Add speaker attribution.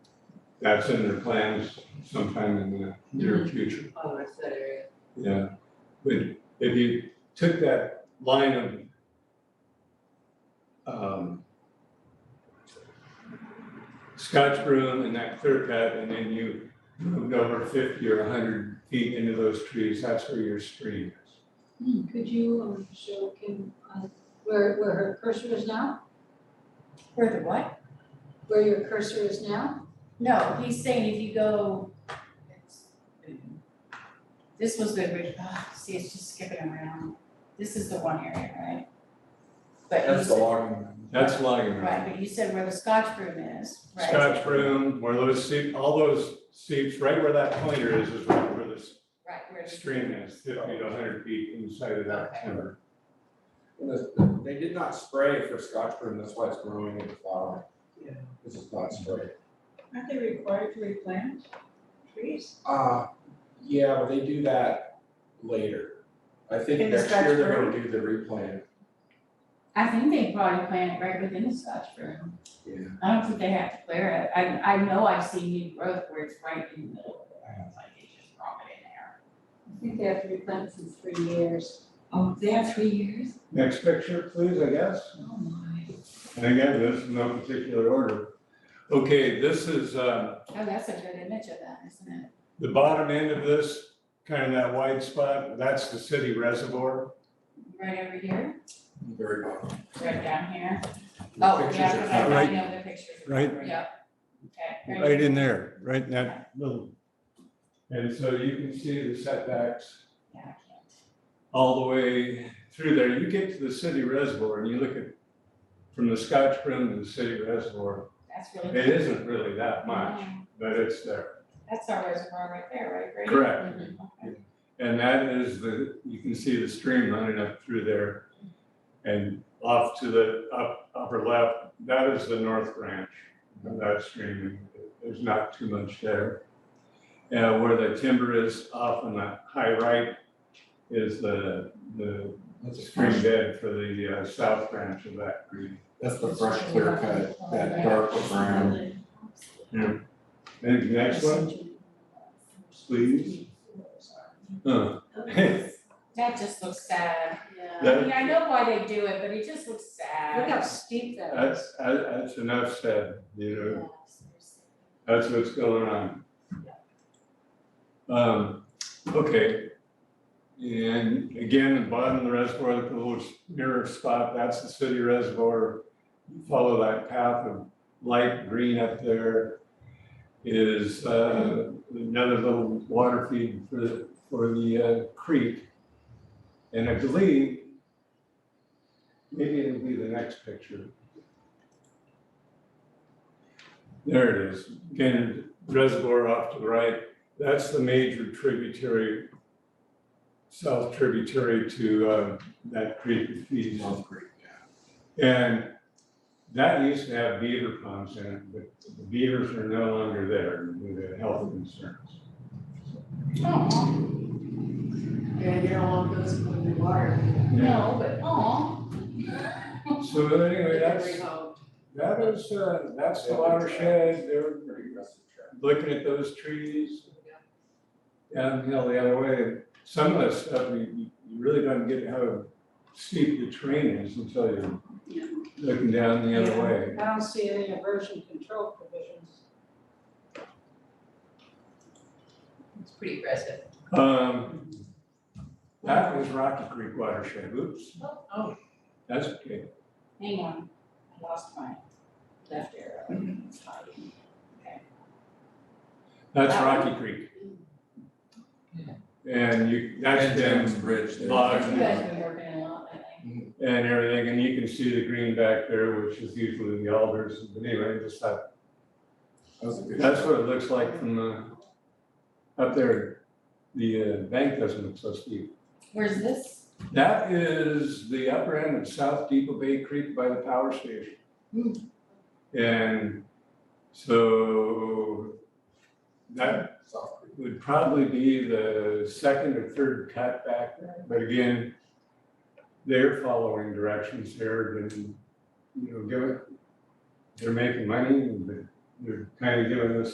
Speaker 1: that's in their plans sometime in the
Speaker 2: Mm-hmm.
Speaker 1: near future.
Speaker 3: on the rest of that area.
Speaker 1: Yeah, but if you took that line of um Scotch broom and that clear cut, and then you moved over fifty or hundred feet into those trees, that's where your stream is.
Speaker 4: Hmm, Could you um, show Kim uh, where, where her cursor is now?
Speaker 2: Where the what?
Speaker 4: Where your cursor is now?
Speaker 2: No, he's saying if you go. This was the original, oh, see, it's just skipping around. This is the one area, right? But you
Speaker 5: That's the
Speaker 2: said,
Speaker 5: logging.
Speaker 1: That's logging
Speaker 2: right,
Speaker 1: road.
Speaker 2: but you said where the Scotch broom is, right?
Speaker 1: Scotch broom, where those seep, all those seeps, right where that pointer is, is right where this
Speaker 2: Right, where the.
Speaker 1: stream is, fifty to hundred feet inside of that
Speaker 2: Okay.
Speaker 1: timber.
Speaker 5: They did not spray for scotch broom, that's why it's growing and flowering.
Speaker 3: Yeah.
Speaker 5: This is not spray.
Speaker 3: Aren't they required to replant trees?
Speaker 5: Uh, yeah, but they do that later. I think
Speaker 3: In the
Speaker 5: next year
Speaker 3: Scotch
Speaker 5: they're gonna do the replant.
Speaker 2: I think they probably plant it right within the Scotch broom.
Speaker 5: Yeah.
Speaker 2: I don't think they have to clear it. I, I know I've seen new growth where it's right in the middle of it. It's like they just drop it
Speaker 4: I
Speaker 2: in there.
Speaker 4: think they have to replant in three years.
Speaker 3: Oh, they have three years?
Speaker 1: Next picture, please, I guess.
Speaker 4: Oh my.
Speaker 1: And again, this is no particular order. Okay, this is, uh,
Speaker 2: Oh, that's a good image of that, isn't it?
Speaker 1: the bottom end of this, kind of that wide spot, that's the city reservoir.
Speaker 2: Right over here,
Speaker 5: Very bottom.
Speaker 2: right down here.
Speaker 5: The
Speaker 2: Oh,
Speaker 5: pictures
Speaker 2: yeah,
Speaker 5: are
Speaker 2: 'cause I I
Speaker 1: Right.
Speaker 2: know the pictures.
Speaker 1: Right.
Speaker 2: Yep. Okay.
Speaker 1: Right in there, right in that little. And so you can see the setbacks
Speaker 2: Yeah, I can't.
Speaker 1: all the way through there. You get to the city reservoir and you look at from the Scotch Brim to the city reservoir,
Speaker 2: That's
Speaker 1: it
Speaker 2: really.
Speaker 1: isn't really that much,
Speaker 2: Um,
Speaker 1: but it's there.
Speaker 2: That's our reservoir right there, right, Brady?
Speaker 1: Correct.
Speaker 2: Okay.
Speaker 1: And that is the, you can see the stream running up through there. And off to the up, upper left, that is the north branch of that stream. There's not too much there. Uh, where the timber is off on the high right is the, the
Speaker 5: That's a
Speaker 1: stream
Speaker 5: fresh,
Speaker 1: bed for the uh, south branch of that green.
Speaker 5: that's the fresh clear cut, that dark brown.
Speaker 1: And next one, please. Huh.
Speaker 2: That just looks sad.
Speaker 3: Yeah.
Speaker 2: I
Speaker 1: That-
Speaker 2: mean, I know why they do it, but it just looks sad.
Speaker 3: Look how steep that is.
Speaker 1: That's, that's enough said, you know.
Speaker 2: Yeah, seriously.
Speaker 1: That's what's going on. Um, okay. And again, the bottom of the reservoir, the little mirror spot, that's the city reservoir. Follow that path of light green up there is, uh, another little water feed for, the- for the uh, creek. And I believe, maybe it'll be the next picture. There it is. Again, reservoir off to the right, that's the major tributary, south tributary to uh, that creek that feeds.
Speaker 5: North Creek, yeah.
Speaker 1: And that used to have beaver ponds in it, but the beavers are no longer there due to health concerns.
Speaker 2: Aw,
Speaker 3: Yeah, you don't want those in the water.
Speaker 2: no, but aw.
Speaker 1: So anyway, that's,
Speaker 3: Rehomed.
Speaker 1: that is, uh, that's the watershed, they're
Speaker 5: Pretty aggressive track.
Speaker 1: looking at those trees. Downhill the other way, some of that stuff, you, you you really don't get how steep the terrain is until you're looking down the other way.
Speaker 4: I don't see any aversion control provisions.
Speaker 3: It's pretty aggressive.
Speaker 1: Um, that was Rocky Creek watershed, oops,
Speaker 3: Oh,
Speaker 1: that's okay.
Speaker 2: Hang on, I lost my left arrow. It's hiding.
Speaker 1: That's Rocky Creek. And you, that's
Speaker 5: And um, Jones
Speaker 1: been
Speaker 5: Bridge there.
Speaker 1: logged
Speaker 2: You guys have been working a lot lately.
Speaker 1: and everything, and you can see the green back there, which is usually the alders, but anyway, just that.
Speaker 5: That was a good.
Speaker 1: That's what it looks like from the, up there, the uh, bank doesn't look so steep.
Speaker 2: Where's this?
Speaker 1: That is the upper end of South Depot Bay Creek by the power station.
Speaker 2: Hmm.
Speaker 1: And so that
Speaker 5: South Creek.
Speaker 1: would probably be the second or third cut back there. But again, they're following directions here and, you know, give it, they're making money, but they're kind of giving us